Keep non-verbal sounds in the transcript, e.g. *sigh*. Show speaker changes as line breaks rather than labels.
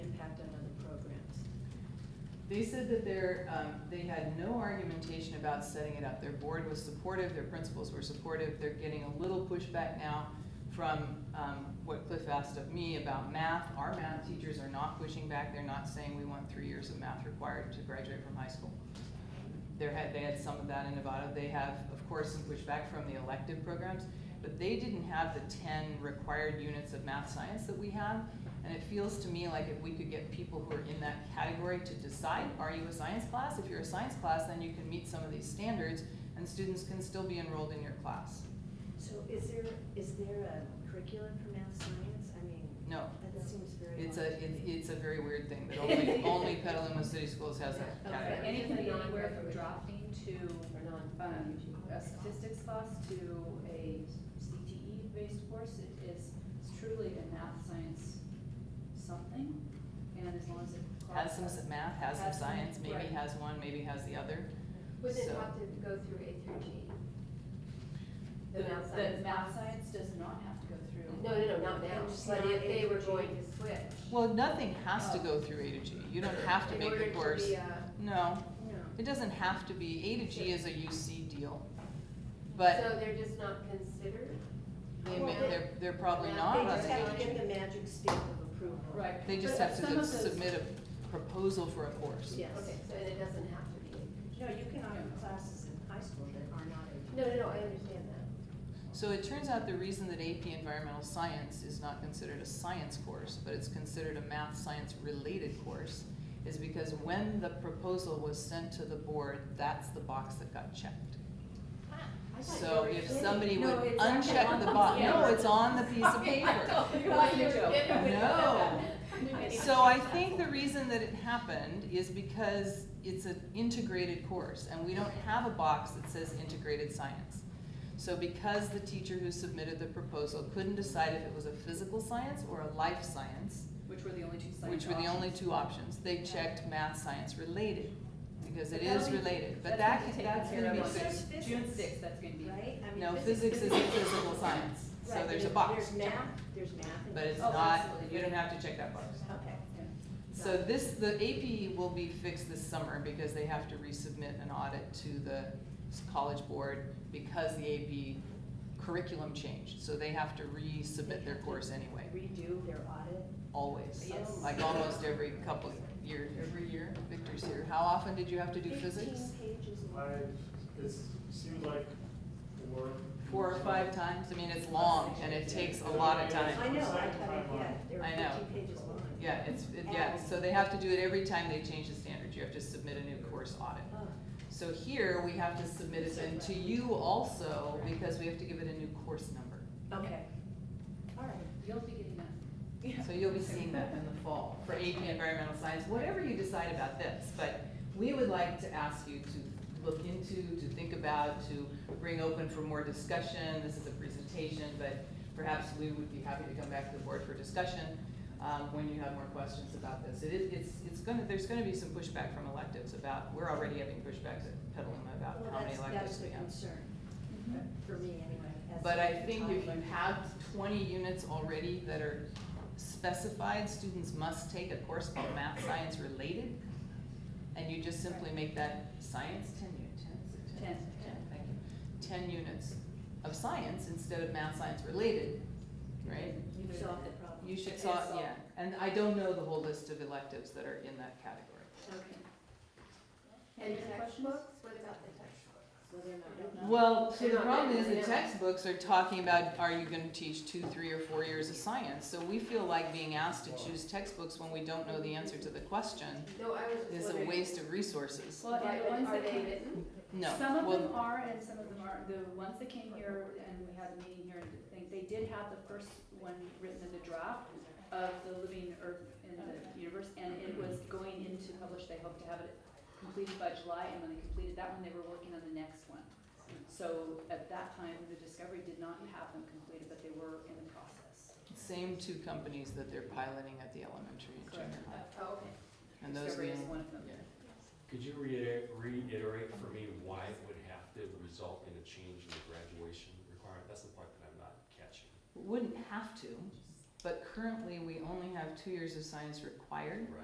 They said that their, um, they had no argumentation about setting it up. Their board was supportive, their principals were supportive. They're getting a little pushback now from, um, what Cliff asked of me about math. Our math teachers are not pushing back. They're not saying we want three years of math required to graduate from high school. There had, they had some of that in Nevada. They have, of course, some pushback from the elective programs, but they didn't have the ten required units of math science that we have. And it feels to me like if we could get people who are in that category to decide, are you a science class? If you're a science class, then you can meet some of these standards and students can still be enrolled in your class.
So is there, is there a curriculum for math science? I mean,
No,
that seems very.
it's a, it's, it's a very weird thing that only, only Petaluma City Schools has that
Okay,
category.
and it can be anywhere from drafting to, um, a statistics class to a CTE-based course. It is it's truly a math science something, and as long as it.
Has some s- math, has some
Has some-
science, maybe
right.
has one, maybe has the other.
Was it
So-
taught to go through A through G? The math
the
science
math
class?
science does not have to go through.
No, no, no, not now,
It's
but
not
if they
A through
were
G.
going to switch.
Well, nothing has to go through A to G. You don't have to
in
make
order
the course.
be a-
No,
No.
it doesn't have to be. A to G is a UC deal. But
So they're just not considered?
They
Well,
may,
they-
they're, they're probably
they
not,
They
but
just
that's
have to
good.
get the magic stamp of approval.
Right.
they just
But
have
some
to
of those- *laughs*
submit a proposal for a course.
Yes.
Okay, so it doesn't have to be?
No, you can offer classes in high school that are not A.
No, no, no, I understand that.
So it turns out the reason that AP Environmental Science is not considered a science course, but it's considered a math science related course, is because when the proposal was sent to the board, that's the box that got checked.
I thought you
So
were
if
kidding.
somebody
No,
would
it's actually
uncheck
on
the
the
box,
paper.
no, it's on the piece of
*laughs* Okay, I
paper.
don't know
I
why
thought
you
you were
joke.
kidding with
No. *laughs*
that.
So I think the reason that it happened is because it's an integrated course, and we don't have a box that says integrated science. So because the teacher who submitted the proposal couldn't decide if it was a physical science or a life science,
Which were the only two science
which were the only
options.
two options, they checked math science related, because it
But that'll
is
be-
related, but that,
gonna be
can-
taken
that's
care
gonna
of
be
on
It says
fixed.
physics,
June sixth, that's gonna be.
Right? I mean,
No,
physics-
physics is a physical science, so
Right,
there's a
and
box,
There's math, there's math. and
but it's
Oh,
not,
absolutely.
you don't have to check that box.
Okay.
Yeah.
So this, the AP will be fixed this summer because they have to resubmit an audit to the s- college board because the AP curriculum changed. So they have to resubmit their course anyway,
Redo their audit.
always.
Yes.
Like almost every couple of year, every year, Victor's here. How often did you have to do physics?
Fifteen pages.
I've, it seems like four.
Four or five times? I mean, it's long and it takes a lot of
I
time.
know, I thought, yeah, they were
I know.
fifteen pages long.
Yeah, it's, it, yeah, so they have to do it every time they change the standard. You have to submit a new course audit.
Oh,
So here, we have to submit it then to you also, because we have to give it a new course number.
Okay. All right.
You'll be getting that.
So you'll be seeing that in the fall for AP Environmental Science, whatever you decide about this. But we would like to ask you to look into, to think about, to bring open for more discussion. This is a presentation, but perhaps we would be happy to come back to the board for discussion um, when you have more questions about this. It is, it's, it's gonna, there's gonna be some pushback from electives about, we're already having pushbacks at Petaluma about
Well,
how many
that's, that's
electives
the
we have.
concern,
Mm-hmm.
for me anyway. as
But I
a
think if you
toddler.
have twenty units already that are specified, students must take a course called math science related. And you just simply make that science, ten units, ten, is it ten?
Ten.
thank you. Ten units of science instead of math science related, right?
You've solved the problem.
You should
It
saw,
is solved.
yeah, and I don't know the whole list of electives that are in that category.
Okay.
And
Any other questions?
textbooks, what about the textbooks? Well, they're not.
Well, so
They're
the
not
problem is
written
the
down.
textbooks are talking about, are you gonna teach two, three, or four years of science? So we feel like being asked to choose textbooks when we don't know the answer to the question
No, I was just
is a
wondering.
waste of resources.
Well, and the ones
Are
that
they
came,
written?
No,
Some of them
well,
are and some of them aren't. The ones that came here and we had a meeting here, and thing- they did have the first one written in the draft of the Living Earth in the Universe, and it was going into publish, they hope to have it completed by July, and when they completed that one, they were working on the next one. So at that time, the Discovery did not have them completed, but they were in the process.
same two companies that they're piloting at the elementary and junior high,
Oh, okay.
and those
Uh, Discovery is
mean-
one of them.
yeah.
Could you reiterate, reiterate for me why it would have to result in a change in the graduation requirement? That's the part that I'm not catching.
Wouldn't have to, but currently we only have two years of science required.
Right.